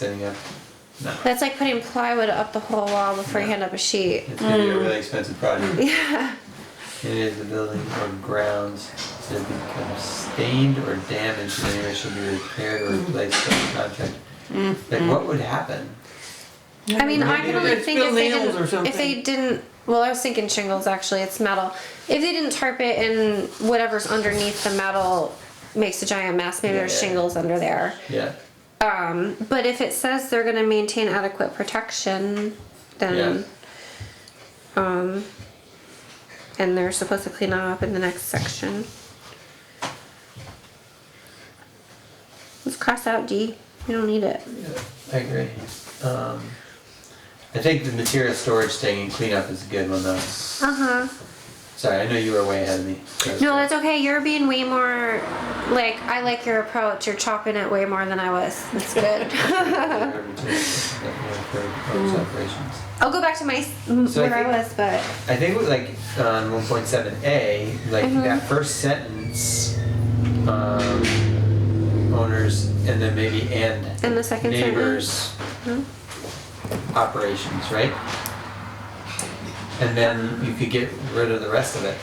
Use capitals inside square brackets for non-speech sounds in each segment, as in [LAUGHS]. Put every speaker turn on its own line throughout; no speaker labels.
then yeah, no.
That's like putting plywood up the whole wall before you hand up a sheet.
It's gonna be a really expensive project. Yeah. It is the building or grounds that have become stained or damaged in any way should be repaired or replaced by the contract. Like what would happen?
I mean, I can only
Maybe
think if
spill
they
nails or
didn't, if they
something.
didn't, well, I was thinking shingles actually, it's metal. If they didn't tarp it and whatever's underneath the metal makes a giant mess, maybe there's
Yeah.
shingles under there.
Yeah,
Um, but if it says they're gonna maintain adequate protection, then, um, and they're supposed to clean up in the next section. Let's cross out D, we don't need it.
yeah, I agree. Um, I think the material storage thing and cleanup is a good one though.
Uh-huh.
Sorry, I know you were way ahead of me. [LAUGHS]
No, that's okay. You're being way more like I like your approach. You're chopping it way more than I was.
[LAUGHS]
That's good.
Operations.
I'll go back to my s- m-
So I
where I,
think-
was, but
I think with, like on one point seven A, like that first sentence, um, owners and then maybe and
And the second
neighbors operations, right? And then you could get rid of the rest of it.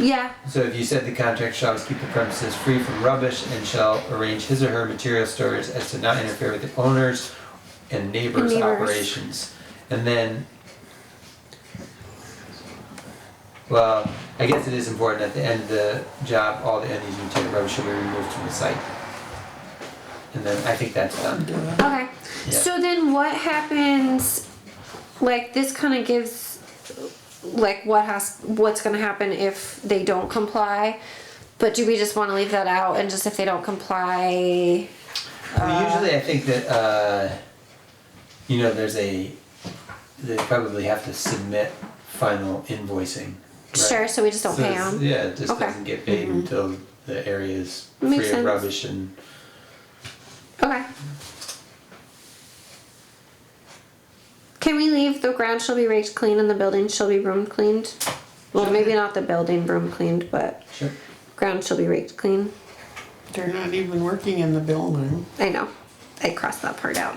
yeah,
So if you said the contract shall keep the premises free from rubbish and shall arrange his or her material storage as to not interfere with the owners and neighbors'
Neighbors.
operations. And then, well, I guess it is important at the end of the job, all the end-use material rubbish should be removed from the site. And then I think that's done.
okay.
Yeah.
So then, what happens? Like this kind of gives like what has what's going to happen if they don't comply. But do we just want to leave that out and just if they don't comply?
Well, usually I think that, uh, you know, there's a, they probably have to submit final invoicing. right?
Sure. So we just don't
So
pay
it's-
them.
Yeah, it just
Okay. Mm-hmm.
doesn't get paid until the area is
Makes
free of
sense.
rubbish and
Okay. Can we leave the ground shall be raked clean and the building shall be broom cleaned? Well, maybe not the building broom cleaned, but
sure.
ground shall be raked clean.
They're not even working in the building.
I know. I crossed that part out.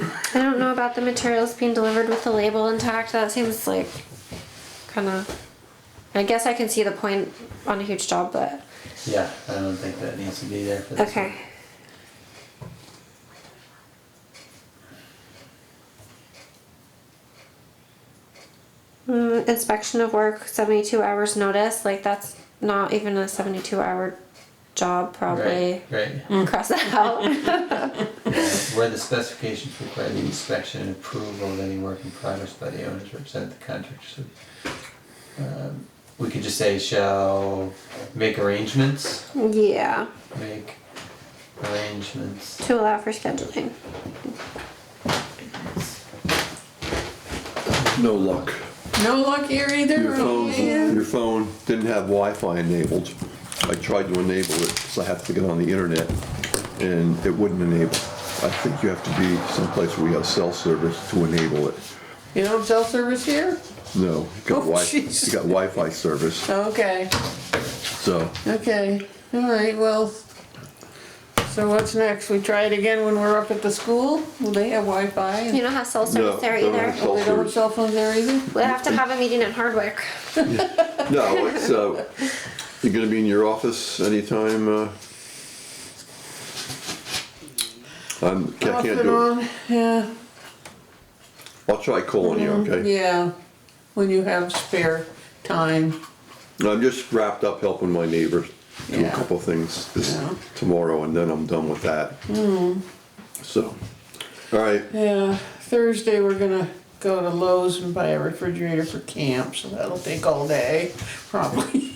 I don't know about the materials being delivered with the label intact. That seems like kind of. I guess I can see the point on a huge job, but
Yeah, I don't think that needs to be there for this.
okay. Mm, inspection of work, seventy-two hours notice, like that's not even a seventy-two hour job, probably.
Right, right.
Cross that out. [LAUGHS]
Yeah, Where the specifications require the inspection and approval of any work in progress by the owners represent the contractor. So, um, We could just say shall make arrangements,
Yeah,
make arrangements.
to allow for scheduling.
No luck.
No luck here either.
Your
oh,
phone,
man.
your phone didn't have Wi-Fi enabled. I tried to enable it, because I have to get on the internet, and it wouldn't enable. I think you have to be someplace where you have cell service to enable it.
You don't have cell service here?
No, you got
Oh,
Wi,
jeez.
you got Wi-Fi service,
Okay,
so
okay, all right, well. So what's next? We try it again when we're up at the school? Will they have Wi-Fi?
You don't have cell service
No,
there
don't
either.
have
Oh, they don't have cell phones there either?
We'll have to have a meeting in Hardwick.
no, it's uh, you're gonna be in your office anytime. Uh, I'm, I
Off
can't
and
do it.
on, yeah,
I'll try calling you,
Mm-hmm.
okay?
yeah, when you have spare time.
No, I'm just wrapped up helping my neighbor do a
Yeah.
couple things this
Yeah.
tomorrow, and then I'm done with that.
Hmm.
So, all right,
Yeah, Thursday we're gonna go to Lowe's and buy a refrigerator for camp, so that'll take all day, probably. [LAUGHS]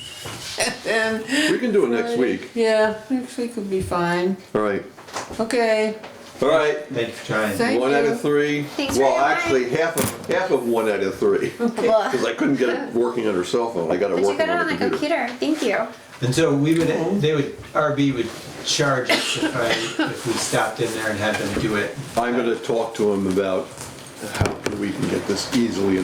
And then,
we can do it next week.
yeah, next week would be fine.
All right,
Okay,
all right.
Thank you for trying.
Thank
one out
you.
of three.
Thanks for
well,
your
actually, half of half of one out of
[LAUGHS]
three, because I couldn't get it working on her cell phone. I got it
But you
working
got it on
the
the computer, thank you.
And so we would, they would, RB would charge us if I, if we stopped in there and had them do it.
I'm gonna talk to him about how we can get this easily